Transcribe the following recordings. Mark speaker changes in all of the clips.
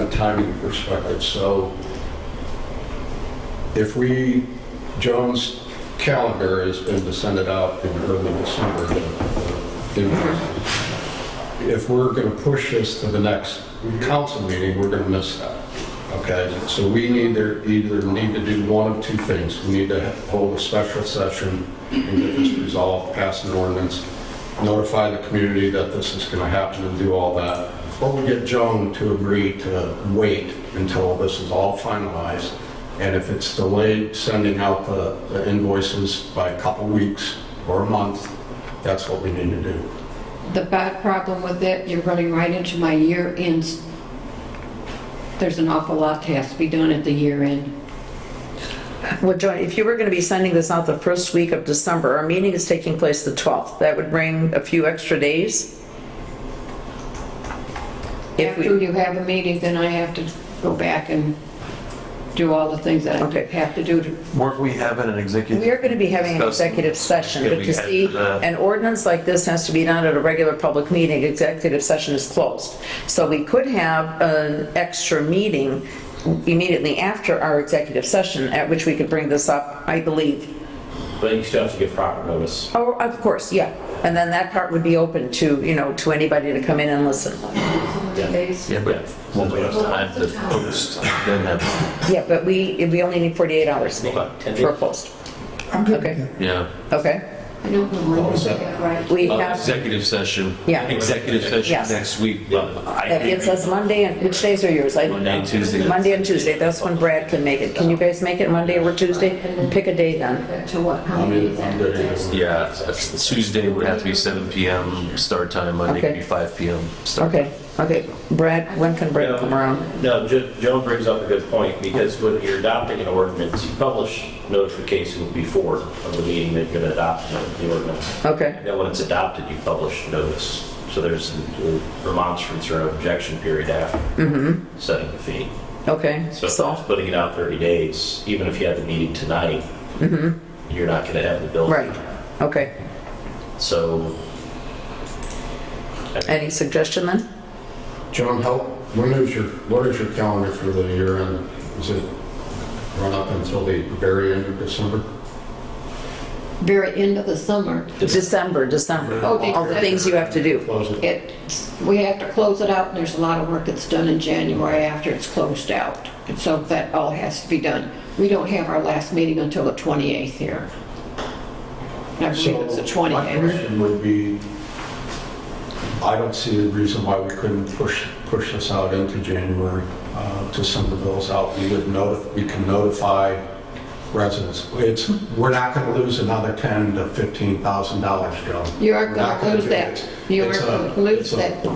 Speaker 1: a timing perspective. So if we, Joan's calendar has been to send it out in early December. the- the invoice. If we're going to push this to the next council meeting, we're going to miss that. Okay, so we need to, either need to do one of two things. We need to hold a special session and get this resolved, pass an ordinance, notify the community that this is going to happen and do all that. Or we get Joan to agree to wait until this is all finalized. And if it's delayed, sending out the the invoices by a couple weeks or a month, that's what we need to do.
Speaker 2: The bad problem with it, you're running right into my year ends. There's an awful lot that has to be done at the year end.
Speaker 3: Well, Joan, if you were going to be sending this out the first week of December, our meeting is taking place the 12th. That would bring a few extra days. If
Speaker 2: After
Speaker 3: we,
Speaker 2: you have a meeting, then I have to go back and do all the things that I
Speaker 3: Okay.
Speaker 2: have to do to
Speaker 4: Weren't we having an executive?
Speaker 3: we are going to be having an
Speaker 4: Discuss-
Speaker 3: executive session,
Speaker 4: Could
Speaker 3: but
Speaker 4: we uh,
Speaker 3: to
Speaker 4: add
Speaker 3: see,
Speaker 4: to that?
Speaker 3: an ordinance like this has to be done at a regular public meeting. Executive session is closed. So we could have an extra meeting immediately after our executive session, at which we could bring this up, I believe,
Speaker 5: But you still have to give proper notice.
Speaker 3: Oh, of course, yeah. And then that part would be open to, you know, to anybody to come in and listen.
Speaker 2: days.
Speaker 4: Yeah, but won't we have time to post, then have,
Speaker 3: Yeah, but we, we only need 48 hours
Speaker 5: Okay, 10
Speaker 3: for a post. Okay,
Speaker 4: yeah.
Speaker 3: okay.
Speaker 2: I don't know when we get that right.
Speaker 3: We
Speaker 4: Uh,
Speaker 3: have,
Speaker 4: Executive session.
Speaker 3: Yeah.
Speaker 4: Executive session
Speaker 3: Yes.
Speaker 4: next week.
Speaker 3: that gets us Monday, and which days are yours? I-
Speaker 4: Monday and Tuesday.
Speaker 3: Monday and Tuesday, that's when Brad can make it. Can you guys make it Monday or Tuesday? Pick a day then.
Speaker 2: To what, how
Speaker 1: I'm
Speaker 2: many
Speaker 1: in-
Speaker 2: is
Speaker 1: I'm good
Speaker 2: that?
Speaker 1: either way.
Speaker 4: Yeah, that's- Tuesday would have to be 7 PM start time, Monday could
Speaker 3: Okay.
Speaker 4: be 5 PM start.
Speaker 3: Okay, okay. Brad, when can Brad come around?
Speaker 5: No, Jo- Joan brings up a good point, because when you're adopting an ordinance, you publish notification before of the meeting that you're going to adopt the the ordinance.
Speaker 3: Okay,
Speaker 5: And then when it's adopted, you publish notice. So there's a remonstrance or objection period after setting the fee.
Speaker 3: okay,
Speaker 5: So
Speaker 3: so,
Speaker 5: putting it out 30 days, even if you had the meeting tonight, you're not going to have the bill.
Speaker 3: right, okay.
Speaker 5: So
Speaker 3: Any suggestion then?
Speaker 1: John, how, when is your, what is your calendar for the year end? Is it run up until the very end of December?
Speaker 2: Very end of the summer.
Speaker 3: December, December.
Speaker 2: Oh,
Speaker 3: All the things you have to do.
Speaker 1: Close it?
Speaker 2: It, we have to close it out, and there's a lot of work that's done in January after it's closed out. And so that all has to be done. We don't have our last meeting until the 28th here. I believe
Speaker 1: So
Speaker 2: it's the
Speaker 1: My
Speaker 2: 28th.
Speaker 1: question would be, I don't see a reason why we couldn't push, push this out into January uh, to send the bills out. We would notify, we can notify residents. It's, we're not going to lose another 10 to 15,000 dollars, Joe.
Speaker 2: You are
Speaker 1: We're
Speaker 2: going
Speaker 1: not
Speaker 2: to
Speaker 1: gonna
Speaker 2: lose
Speaker 1: do
Speaker 2: that.
Speaker 1: it.
Speaker 2: You are
Speaker 1: It's a-
Speaker 2: going to lose
Speaker 1: it's a-
Speaker 2: that.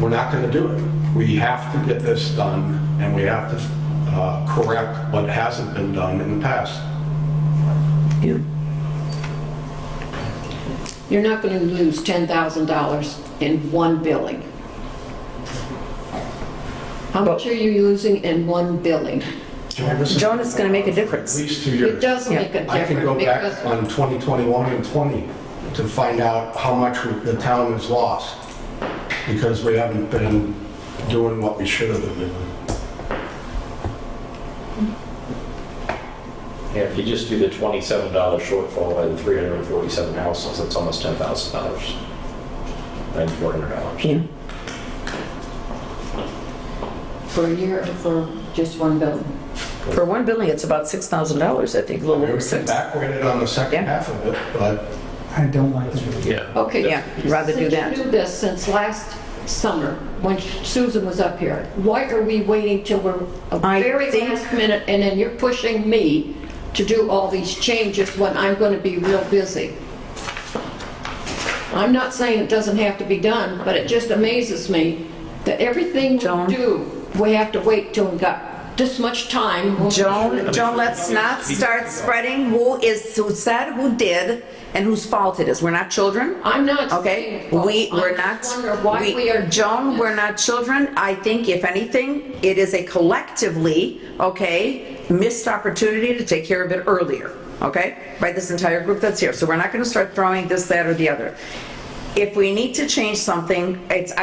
Speaker 1: We're not going to do it. We have to get this done and we have to uh, correct what hasn't been done in the past.
Speaker 3: You-
Speaker 2: You're not going to lose $10,000 in one billing. How much are you losing in one billing?
Speaker 1: Joan, this is-
Speaker 3: Joan, it's gonna make a difference.
Speaker 1: At least two years.
Speaker 2: It does
Speaker 3: Yeah.
Speaker 2: make a difference.
Speaker 1: I can go
Speaker 2: because-
Speaker 1: back on 2021 and 20 to find out how much the town has lost because we haven't been doing what we should have been doing.
Speaker 5: Yeah, if you just do the twenty-seven dollar shortfall by the three hundred and forty-seven houses, that's almost ten thousand dollars. And four hundred dollars.
Speaker 3: you-
Speaker 2: For a year, or for just one building?
Speaker 3: For one building, it's about $6,000, I think, a little
Speaker 1: We
Speaker 3: over
Speaker 1: were
Speaker 3: six.
Speaker 1: backweighted on the second
Speaker 3: Yeah.
Speaker 1: half of it, but
Speaker 6: I don't like that.
Speaker 4: Yeah.
Speaker 2: Okay.
Speaker 3: Yeah, rather do
Speaker 2: Since
Speaker 3: that.
Speaker 2: you do this since last summer, when Susan was up here, why are we waiting till we're a
Speaker 3: I
Speaker 2: very
Speaker 3: think-
Speaker 2: last minute, and then you're pushing me to do all these changes when I'm going to be real busy? I'm not saying it doesn't have to be done, but it just amazes me that everything
Speaker 3: Joan?
Speaker 2: we do, we have to wait till we got this much time. We'll-
Speaker 3: Joan, Joan, let's not start spreading who is, who said, who did, and whose fault it is. We're not children,
Speaker 2: I'm not.
Speaker 3: okay?
Speaker 2: saying-
Speaker 3: We, we're
Speaker 2: I
Speaker 3: not,
Speaker 2: just wonder why
Speaker 3: we-
Speaker 2: we are.
Speaker 3: Joan, we're not children. I think if anything, it is a collectively, okay, missed opportunity to take care of it earlier, okay? By this entire group that's here. So we're not going to start throwing this, that, or the other. If we need to change something, it's,